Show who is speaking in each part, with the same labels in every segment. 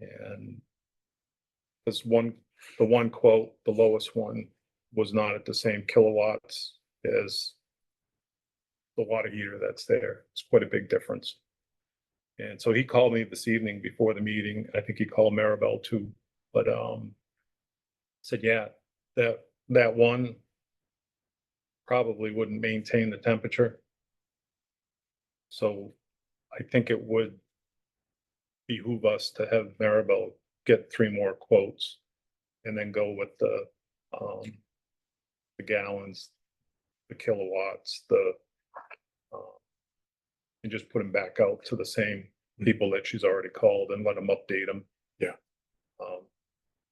Speaker 1: And this one, the one quote, the lowest one, was not at the same kilowatts as the water heater that's there. It's quite a big difference. And so he called me this evening before the meeting. I think he called Maribel too, but um said, yeah, that that one probably wouldn't maintain the temperature. So I think it would behoove us to have Maribel get three more quotes and then go with the, um, the gallons, the kilowatts, the, um, and just put them back out to the same people that she's already called and let them update them.
Speaker 2: Yeah.
Speaker 1: Um,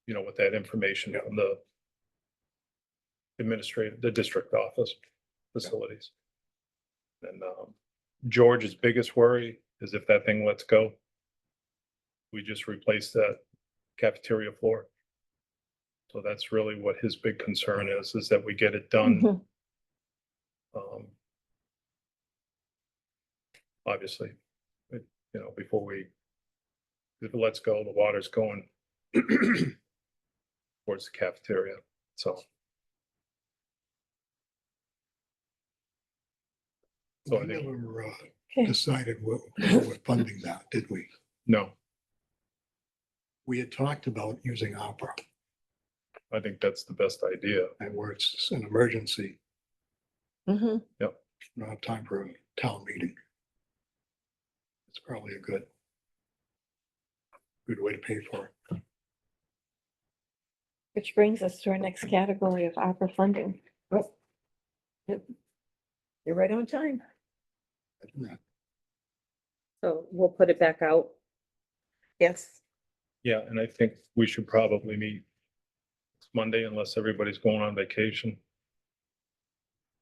Speaker 1: you know, with that information from the administrative, the district office facilities. And, um, George's biggest worry is if that thing lets go. We just replace that cafeteria floor. So that's really what his big concern is, is that we get it done,
Speaker 3: Mhm.
Speaker 1: um. Obviously, but, you know, before we, if it lets go, the water's going towards the cafeteria, so. So I
Speaker 2: We
Speaker 1: think-
Speaker 2: never uh,
Speaker 3: Okay.
Speaker 2: decided what, what we're funding that, did we?
Speaker 1: No,
Speaker 2: We had talked about using opera
Speaker 1: I think that's the best idea.
Speaker 2: and where it's an emergency,
Speaker 4: Mm-hmm.
Speaker 3: Mhm.
Speaker 2: not have time for a town meeting. It's probably a good, good way to pay for it.
Speaker 3: Which brings us to our next category of opera funding.
Speaker 5: You're right on time.
Speaker 2: Isn't that-
Speaker 5: So we'll put it back out. Yes.
Speaker 1: Yeah, and I think we should probably meet Monday unless everybody's going on vacation.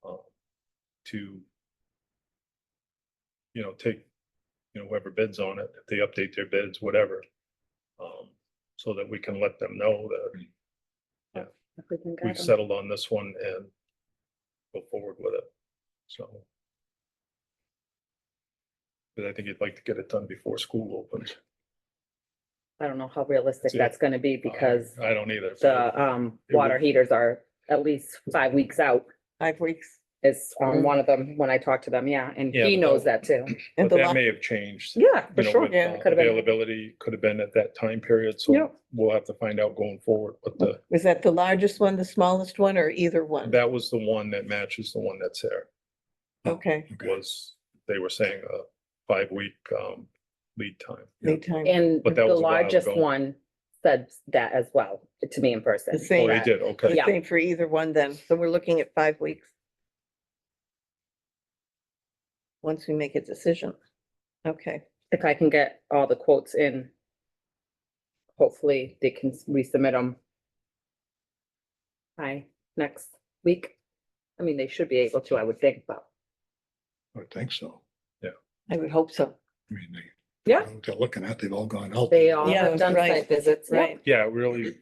Speaker 1: uh, To, you know, take, you know, whoever bids on it, if they update their bids, whatever. um, So that we can let them know that
Speaker 5: if we can
Speaker 1: we've
Speaker 5: get 'em.
Speaker 1: settled on this one and go forward with it, so. But I think you'd like to get it done before school opens.
Speaker 5: I don't know how realistic
Speaker 1: Yeah.
Speaker 5: that's gonna be because
Speaker 1: I I don't either.
Speaker 5: the um
Speaker 1: It would-
Speaker 5: water heaters are at least five weeks out.
Speaker 4: five weeks.
Speaker 5: Is on one of them when I talk to them, yeah, and
Speaker 1: Yeah,
Speaker 5: he
Speaker 1: but
Speaker 5: knows
Speaker 1: that-
Speaker 5: that too.
Speaker 1: But
Speaker 4: And the
Speaker 1: that
Speaker 4: last,
Speaker 1: may have changed.
Speaker 5: Yeah,
Speaker 1: you
Speaker 5: for
Speaker 1: know,
Speaker 5: sure.
Speaker 1: with,
Speaker 4: yeah,
Speaker 1: uh,
Speaker 5: it could've been-
Speaker 1: Availability could have been at that time period,
Speaker 5: Yep.
Speaker 1: so we'll have to find out going forward, but the,
Speaker 4: was that the largest one, the smallest one, or either one?
Speaker 1: that was the one that matches the one that's there,
Speaker 4: Okay,
Speaker 2: Okay.
Speaker 1: was, they were saying a five-week, um, lead time.
Speaker 4: lead time.
Speaker 5: And
Speaker 1: But that
Speaker 5: the
Speaker 1: was a while
Speaker 5: largest
Speaker 1: ago.
Speaker 5: one said that as well to me in person.
Speaker 4: The
Speaker 1: Oh,
Speaker 4: same.
Speaker 1: they did, okay.
Speaker 4: The
Speaker 5: Yeah.
Speaker 4: same for either one then. So we're looking at five weeks. Once we make a decision. Okay,
Speaker 5: If I can get all the quotes in, hopefully they can s- resubmit them by next week. I mean, they should be able to, I would think, but
Speaker 2: I would think so.
Speaker 4: I would hope so.
Speaker 2: I mean, they.
Speaker 5: Yeah.
Speaker 2: what They're looking at, they've all gone out.
Speaker 5: they
Speaker 2: there.
Speaker 5: all
Speaker 4: Yeah,
Speaker 5: have done
Speaker 4: right,
Speaker 5: site visits. yep.
Speaker 4: Right.
Speaker 1: Yeah, really,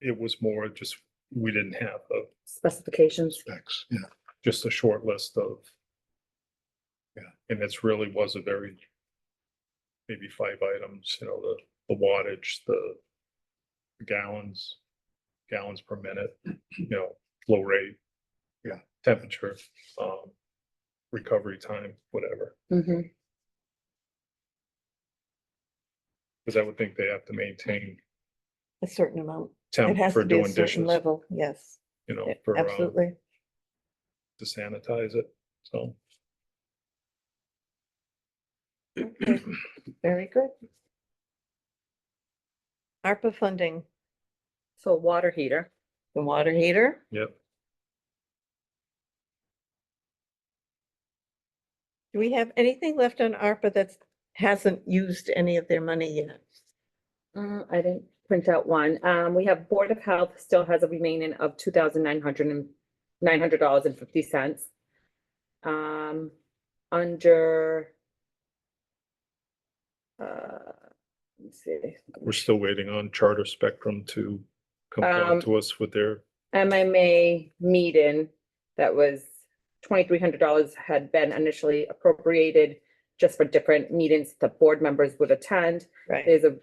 Speaker 1: it was more just, we didn't have a,
Speaker 5: Specifications,
Speaker 2: Specs, yeah.
Speaker 1: just a short list of.
Speaker 2: Yeah.
Speaker 1: And it's really was a very, maybe five items, you know, the, the wattage, the gallons, gallons per minute, you know, flow rate.
Speaker 2: Yeah.
Speaker 1: Temperature, um, recovery time, whatever,
Speaker 5: Mhm.
Speaker 1: because I would think they have to maintain
Speaker 4: A certain amount. It
Speaker 1: temp
Speaker 4: has
Speaker 1: for
Speaker 4: to be a
Speaker 1: doing
Speaker 4: certain
Speaker 1: dishes,
Speaker 4: level. Yes,
Speaker 1: you know,
Speaker 4: Yeah,
Speaker 1: for, um,
Speaker 4: absolutely.
Speaker 1: to sanitize it, so.
Speaker 4: Okay, Very good. ARPA funding,
Speaker 5: so water heater,
Speaker 4: the water heater.
Speaker 1: Yep,
Speaker 4: Do we have anything left on ARPA that's hasn't used any of their money yet?
Speaker 5: Uh, I didn't print out one, um, we have Board of Health still has a remaining of two thousand nine hundred and, nine hundred dollars and fifty cents. Um, under uh, let's see,
Speaker 1: we're still waiting on Charter Spectrum to come
Speaker 5: Um,
Speaker 1: back to us with their
Speaker 5: MMA meeting that was twenty-three hundred dollars had been initially appropriated just for different meetings that board members would attend.
Speaker 4: Right.
Speaker 5: There's a